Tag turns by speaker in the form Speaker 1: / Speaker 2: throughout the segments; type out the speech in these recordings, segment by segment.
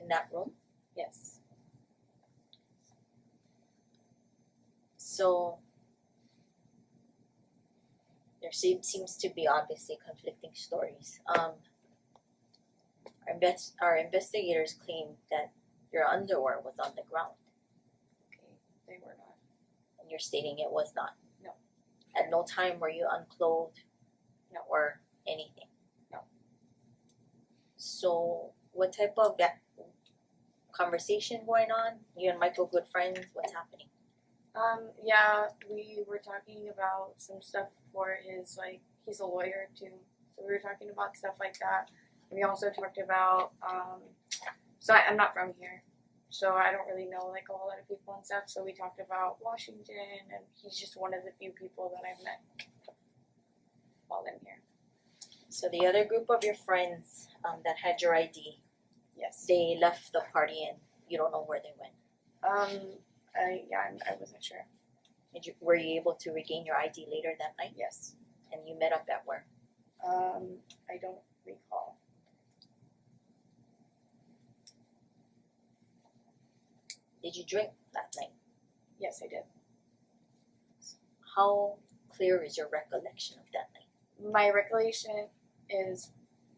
Speaker 1: in that room?
Speaker 2: Yes.
Speaker 1: So there seems seems to be obviously conflicting stories. Um, our invest our investigators claim that your underwear was on the ground,
Speaker 2: Okay. They were not.
Speaker 1: and you're stating it was not.
Speaker 2: No.
Speaker 1: At no time were you unclothed.
Speaker 2: No.
Speaker 1: Or anything.
Speaker 2: No.
Speaker 1: So what type of ga- conversation going on? You and Michael good friends. What's happening?
Speaker 2: Um, yeah, we were talking about some stuff for his like he's a lawyer too. So we were talking about stuff like that. We also talked about um so I, I'm not from here. So I don't really know like a whole lot of people and stuff. So we talked about Washington and he's just one of the few people that I've met while I'm here.
Speaker 1: So the other group of your friends um, that had your ID,
Speaker 2: Yes.
Speaker 1: they left the party and you don't know where they went.
Speaker 2: Um I yeah, I'm, I wasn't sure.
Speaker 1: Did you, were you able to regain your ID later that night?
Speaker 2: Yes.
Speaker 1: And you met up at where?
Speaker 2: Um I don't recall.
Speaker 1: Did you drink that night?
Speaker 2: Yes, I did.
Speaker 1: How clear is your recollection of that night?
Speaker 2: my recollection is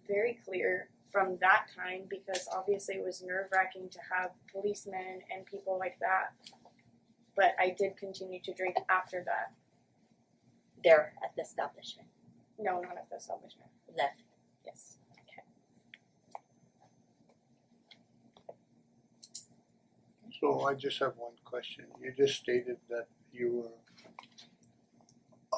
Speaker 2: very clear from that time because obviously it was nerve wracking to have policemen and people like that. But I did continue to drink after that.
Speaker 1: There at the establishment,
Speaker 2: No, not at the establishment.
Speaker 1: left.
Speaker 2: Yes.
Speaker 3: So I just have one question. You just stated that you were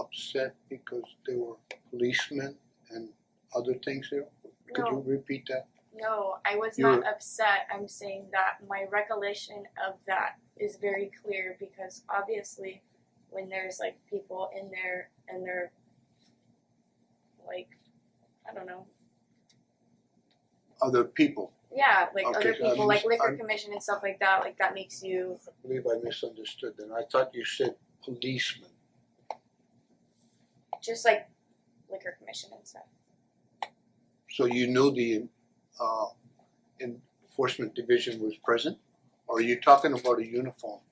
Speaker 3: upset because there were policemen and other things there. Could
Speaker 2: No,
Speaker 3: you repeat that?
Speaker 2: no, I was
Speaker 3: You
Speaker 2: not
Speaker 3: were-
Speaker 2: upset. I'm saying that my recollection of that is very clear because obviously when there's like people in there and they're like, I don't know,
Speaker 3: Other people.
Speaker 2: Yeah, like
Speaker 3: Okay,
Speaker 2: other
Speaker 3: so I'm
Speaker 2: people, like
Speaker 3: just-
Speaker 2: liquor
Speaker 3: I'm-
Speaker 2: commission and stuff like that. Like that makes you.
Speaker 3: I believe I misunderstood then. I thought you said policemen.
Speaker 2: Just like liquor commission and stuff.
Speaker 3: So you knew the uh enforcement division was present? Or are you talking about a uniform?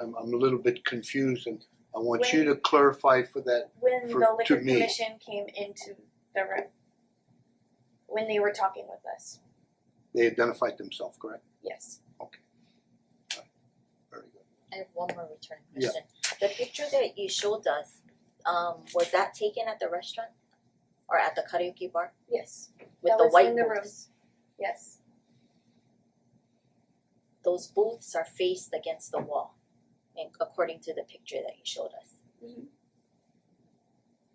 Speaker 3: I'm I'm a little bit confused and I want you to clarify for that
Speaker 2: When
Speaker 3: For-
Speaker 2: the
Speaker 3: to
Speaker 2: liquor
Speaker 3: me.
Speaker 2: commission came into the room, when they were talking with us,
Speaker 3: they identified themselves, correct?
Speaker 2: yes,
Speaker 3: Very good.
Speaker 1: I have one more return
Speaker 3: Yeah.
Speaker 1: question. The picture that you showed us, um, was that taken at the restaurant or at the karaoke bar
Speaker 2: yes,
Speaker 1: with
Speaker 2: that
Speaker 1: the
Speaker 2: was
Speaker 1: white
Speaker 2: in the room.
Speaker 1: booths?
Speaker 2: Yes,
Speaker 1: Those booths are faced against the wall, and according to the picture that you showed us.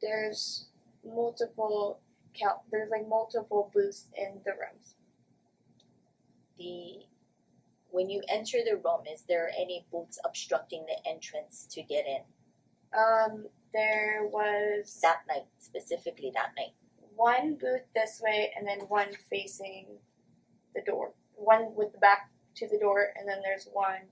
Speaker 2: there's multiple count. There's like multiple booths in the rooms.
Speaker 1: the when you enter the room is there any booths obstructing the entrance to get in
Speaker 2: Um, there was
Speaker 1: that night specifically that night
Speaker 2: one booth this way and then one facing the door. One with the back to the door and then there's one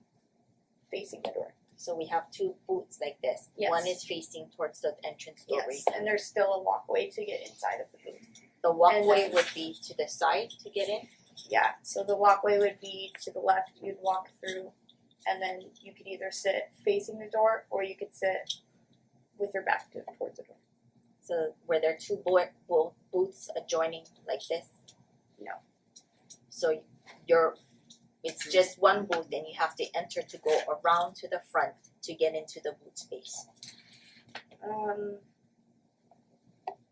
Speaker 2: facing the door.
Speaker 1: so we have two booths like this
Speaker 2: Yes.
Speaker 1: one is facing towards the entrance door
Speaker 2: Yes.
Speaker 1: right?
Speaker 2: And there's still a walkway to get inside of the booth.
Speaker 1: the walkway
Speaker 2: then-
Speaker 1: would be to the side to get in
Speaker 2: Yeah. So the walkway would be to the left, you'd walk through and then you could either sit facing the door or you could sit with your back to towards the door.
Speaker 1: so were there two bo- bo- booths adjoining like this
Speaker 2: No.
Speaker 1: so you're it's just one booth and you have to enter to go around to the front to get into the booth space
Speaker 2: Um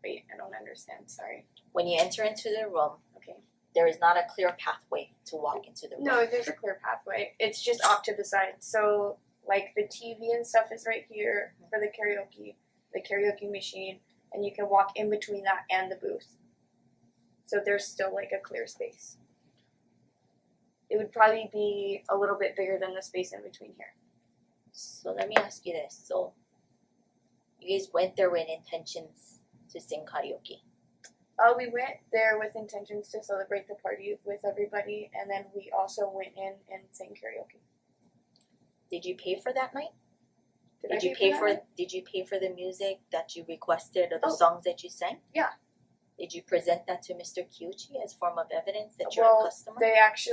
Speaker 2: wait, I don't understand, sorry.
Speaker 1: when you enter into the room
Speaker 2: Okay.
Speaker 1: there is not a clear pathway to walk into the room.
Speaker 2: No, there's a clear pathway. It's just off to the side. So, like, the TV and stuff is right here
Speaker 1: Mm-hmm.
Speaker 2: for the karaoke, the karaoke machine, and you can walk in between that and the booth. So, there's still like a clear space. It would probably be a little bit bigger than the space in between here.
Speaker 1: So let me ask you this. So you guys went there with intentions to sing karaoke.
Speaker 2: Uh, we went there with intentions to celebrate the party with everybody, and then we also went in and sang karaoke.
Speaker 1: Did you pay for that night?
Speaker 2: Did, I
Speaker 1: you
Speaker 2: pay
Speaker 1: pay
Speaker 2: that?
Speaker 1: for did you pay for the music that you requested or the
Speaker 2: Oh.
Speaker 1: songs that you sang?
Speaker 2: Yeah.
Speaker 1: Did you present that to Mr. Kyuchi as form of evidence that you're
Speaker 2: Well,
Speaker 1: a customer?
Speaker 2: They actually.